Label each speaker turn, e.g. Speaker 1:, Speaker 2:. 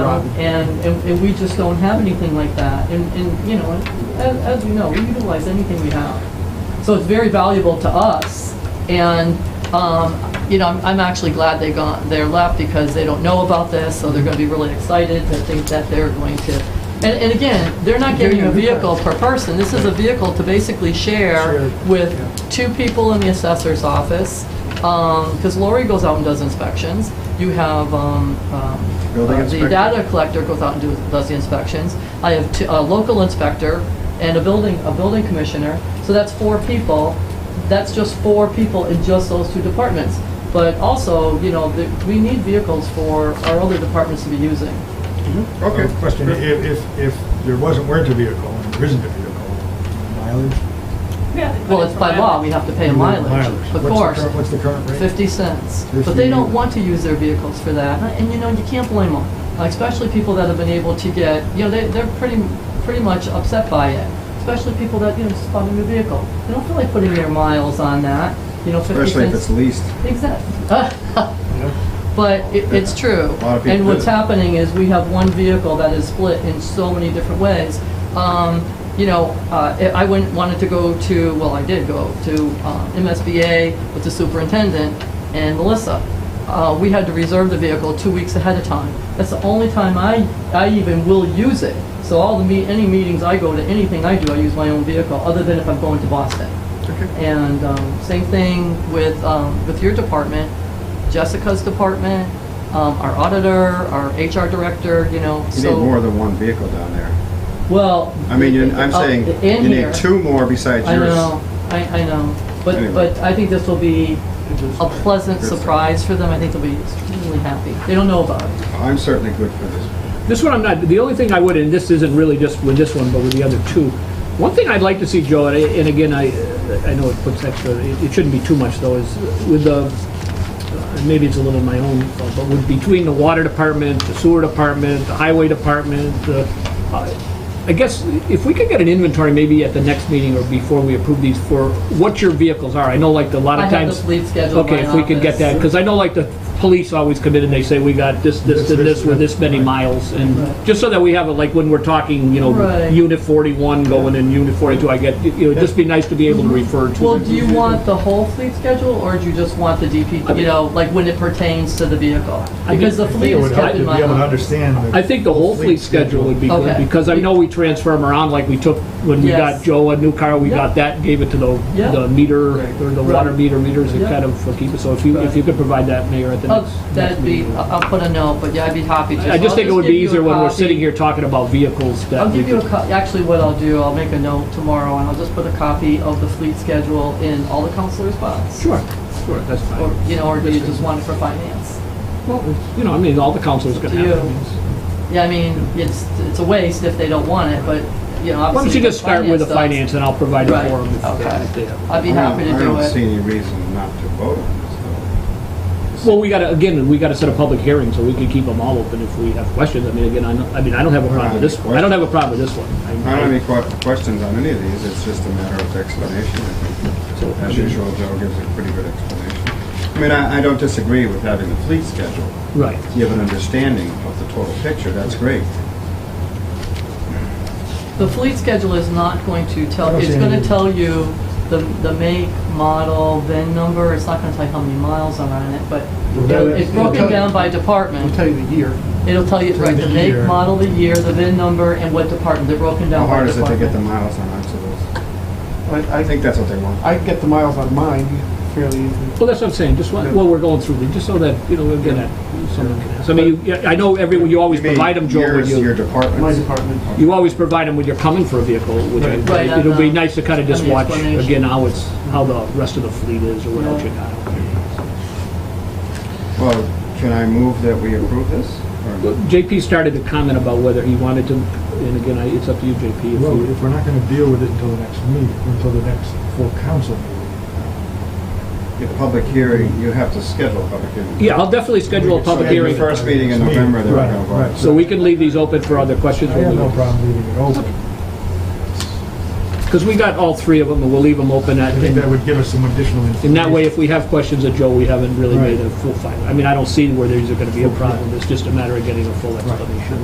Speaker 1: And, and- and we just don't have anything like that. And, and, you know, as, as you know, we utilize anything we have. So it's very valuable to us. And, um, you know, I'm, I'm actually glad they gone, they're left because they don't know about this, so they're gonna be really excited to think that they're going to. And, and again, they're not getting a vehicle per person. This is a vehicle to basically share
Speaker 2: Sure.
Speaker 1: with
Speaker 2: Yeah.
Speaker 1: two people in the assessor's office, because Lori goes out and does inspections. You have um, um,
Speaker 3: Building
Speaker 1: uh, the
Speaker 3: inspector.
Speaker 1: data collector goes out and do- does the inspections. I have two- a local inspector and a building, a building commissioner. So that's four people. That's just four people in just those two departments. But also, you know, the- we need vehicles for our other departments to be using.
Speaker 3: Okay.
Speaker 2: Uh, Question, if, if, if there wasn't, weren't a vehicle, and there isn't a vehicle, mileage?
Speaker 1: Well, it's by law, we have to pay a mileage, of
Speaker 2: What's the
Speaker 1: course.
Speaker 2: current- What's the current rate?
Speaker 1: 50 cents. But they don't want to use their vehicles for that, and you know, you can't blame them, especially people that have been able to get, you know, they- they're pretty, pretty much upset by it, especially people that, you know, just bought a new vehicle. They don't feel like putting their miles on that, you know, 50 cents.
Speaker 3: Especially if it's leased.
Speaker 1: Exactly.
Speaker 2: Yeah.
Speaker 1: But it, it's true.
Speaker 3: A lot of people
Speaker 1: And what's
Speaker 3: do.
Speaker 1: happening is we have one vehicle that is split in so many different ways. Um, you know, uh, I- I went, wanted to go to, well, I did go to, uh, MSBA with the superintendent and Melissa. Uh, we had to reserve the vehicle two weeks ahead of time. That's the only time I, I even will use it. So all the me, any meetings I go to, anything I do, I use my own vehicle, other than if I'm going to Boston. And um, same thing with, um, with your department, Jessica's department, um, our auditor, our HR director, you know,
Speaker 3: You
Speaker 1: so.
Speaker 3: need more than one vehicle down there.
Speaker 1: Well.
Speaker 3: I mean, you- I'm
Speaker 1: uh,
Speaker 3: saying,
Speaker 1: in
Speaker 3: you
Speaker 1: here.
Speaker 3: need two more besides
Speaker 1: I
Speaker 3: yours.
Speaker 1: know, I, I know. But,
Speaker 3: Anyway.
Speaker 1: but I think this will be a pleasant
Speaker 3: Good.
Speaker 1: surprise for them. I think they'll be extremely happy. They don't know about it.
Speaker 3: I'm certainly good for this.
Speaker 4: This one I'm not, the only thing I would, and this isn't really just with this one, but with the other two, one thing I'd like to see, Joe, and I- and again, I, I know it puts extra, it it shouldn't be too much though, is with the, and maybe it's a little my own, fault, but with, between the water department, the sewer department, the highway department, the, uh, I guess, if we could get an inventory maybe at the next meeting or before we approve these for what your vehicles are, I know like a lot
Speaker 1: I
Speaker 4: of times.
Speaker 1: have the fleet schedule in
Speaker 4: Okay,
Speaker 1: my
Speaker 4: if we could get that,
Speaker 1: office.
Speaker 4: because I know like the police always come in and they say, we got this, this, and this with this many miles, and just so that we have it, like when we're talking, you know,
Speaker 1: Right.
Speaker 4: unit forty-one going in unit forty-two, I get, you know, it'd just be nice to be able to refer
Speaker 1: Well,
Speaker 4: to.
Speaker 1: do you want the whole fleet schedule or do you just want the DP, you know, like when it pertains to the vehicle?
Speaker 4: I
Speaker 1: Because the
Speaker 4: think-
Speaker 2: I think
Speaker 1: fleet
Speaker 2: it
Speaker 1: is
Speaker 2: would help
Speaker 1: kept
Speaker 2: to
Speaker 1: in
Speaker 2: be
Speaker 1: my
Speaker 2: able to
Speaker 1: office.
Speaker 2: understand. the-
Speaker 4: I think the whole fleet schedule would be good,
Speaker 1: Okay.
Speaker 4: because I know we transfer them around, like we took, when we
Speaker 1: Yes.
Speaker 4: got Joe a new car, we
Speaker 1: Yeah.
Speaker 4: got that, gave it to the,
Speaker 1: Yeah.
Speaker 4: the meter,
Speaker 1: Right.
Speaker 4: or the
Speaker 1: Right.
Speaker 4: water meter readers, and
Speaker 1: Yeah.
Speaker 4: kind of keep it, so if you,
Speaker 1: Right.
Speaker 4: if you could provide that, Mayor, at the
Speaker 1: Oh,
Speaker 4: next.
Speaker 1: That'd
Speaker 4: next
Speaker 1: be,
Speaker 4: meeting.
Speaker 1: I'll I'll put a note, but yeah, I'd be happy to.
Speaker 4: I
Speaker 1: So
Speaker 4: just
Speaker 1: I'll
Speaker 4: think it would
Speaker 1: give
Speaker 4: be
Speaker 1: you a
Speaker 4: easier when we're
Speaker 1: copy.
Speaker 4: sitting here talking about vehicles that.
Speaker 1: I'll
Speaker 4: we
Speaker 1: give you a,
Speaker 4: could-
Speaker 1: co- actually what I'll do, I'll make a note tomorrow and I'll just put a copy of the fleet schedule in all the counselors' spots.
Speaker 4: Sure, sure, that's fine.
Speaker 1: Or, you know, or do you just want it for finance?
Speaker 4: Well, it's- you know, I mean, all the councilors gonna
Speaker 1: You.
Speaker 4: have. it. I mean, it's-
Speaker 1: Yeah, I mean, it's, it's a waste if they don't want it, but, you know, obviously.
Speaker 4: Why don't you just start with the
Speaker 1: does.
Speaker 4: finance and I'll provide it
Speaker 1: Right,
Speaker 4: for them.
Speaker 1: okay. I'd be happy to
Speaker 3: I don't
Speaker 1: do
Speaker 3: see
Speaker 1: it.
Speaker 3: any reason not to vote on this, though.
Speaker 4: Well, we gotta, again, we gotta set a public hearing so we can keep them all open if we have questions. I mean, again, I don't, I mean, I don't have a problem with this one. I don't have a problem with this one.
Speaker 3: I don't have any que- questions on any of these, it's just a matter of explanation, I think. As usual, Joe gives a pretty good explanation. I mean, I, I don't disagree with having the fleet schedule.
Speaker 4: Right.
Speaker 3: You have an understanding of the total picture, that's great.
Speaker 1: The fleet schedule is not going to
Speaker 2: I
Speaker 1: tell,
Speaker 2: don't
Speaker 1: it's
Speaker 2: see
Speaker 1: gonna
Speaker 2: any-
Speaker 1: tell you the, the make, model, VIN number, it's not gonna tell you how many miles are on it, but
Speaker 2: Well,
Speaker 1: you know,
Speaker 2: that-
Speaker 1: it's
Speaker 2: it'll tell
Speaker 1: broken
Speaker 2: you-
Speaker 1: down by department.
Speaker 2: I'll tell you the year.
Speaker 1: It'll tell you,
Speaker 2: Tell
Speaker 1: right,
Speaker 2: the
Speaker 1: the make,
Speaker 2: year.
Speaker 1: model, the year, the VIN number, and what department, they're broken
Speaker 3: How
Speaker 1: down by
Speaker 3: hard is it to
Speaker 1: department.
Speaker 3: get the miles on each of those?
Speaker 2: I,
Speaker 3: I think that's what they want.
Speaker 2: I can get the miles on mine fairly easily.
Speaker 4: Well, that's what I'm saying, just while, while we're going through, these, just so that, you know, we'll get at someone can ask. I mean, you- I know everyone, you always
Speaker 3: You mean
Speaker 4: provide them, Joe,
Speaker 3: Yours,
Speaker 4: with
Speaker 3: your
Speaker 4: you.
Speaker 2: My
Speaker 3: department.
Speaker 2: department.
Speaker 4: You always provide them when you're coming for a vehicle, which I,
Speaker 1: Right, on
Speaker 4: it'll be
Speaker 1: the-
Speaker 4: nice to kind of just
Speaker 1: on the
Speaker 4: watch,
Speaker 1: explanation.
Speaker 4: again, how it's, how the rest of the fleet is or what else you got. out there.
Speaker 3: Well, can I move that we approve this?
Speaker 4: Well,
Speaker 3: Or-
Speaker 4: JP started to comment about whether he wanted to, and again, I- it's up to you, JP. if
Speaker 2: Well,
Speaker 4: you-
Speaker 2: if we're not gonna deal with it until the next meeting, until the next full council meeting.
Speaker 3: Your public hearing, you have to schedule a public hearing.
Speaker 4: Yeah, I'll definitely schedule a
Speaker 2: We can
Speaker 4: public
Speaker 3: At your
Speaker 4: hearing,
Speaker 3: first meeting in November, they're gonna
Speaker 2: Right, right.
Speaker 3: vote.
Speaker 4: so we can leave these open for other questions.
Speaker 2: I have no problem leaving it open.
Speaker 4: Because we got all three of them, and we'll leave them open at,
Speaker 2: I think that would give us some additional information.
Speaker 4: in that way, if we have questions of Joe, we haven't really
Speaker 2: Right.
Speaker 4: made a full final. I mean, I don't see where these are gonna be a problem, it's just a matter of getting a full explanation.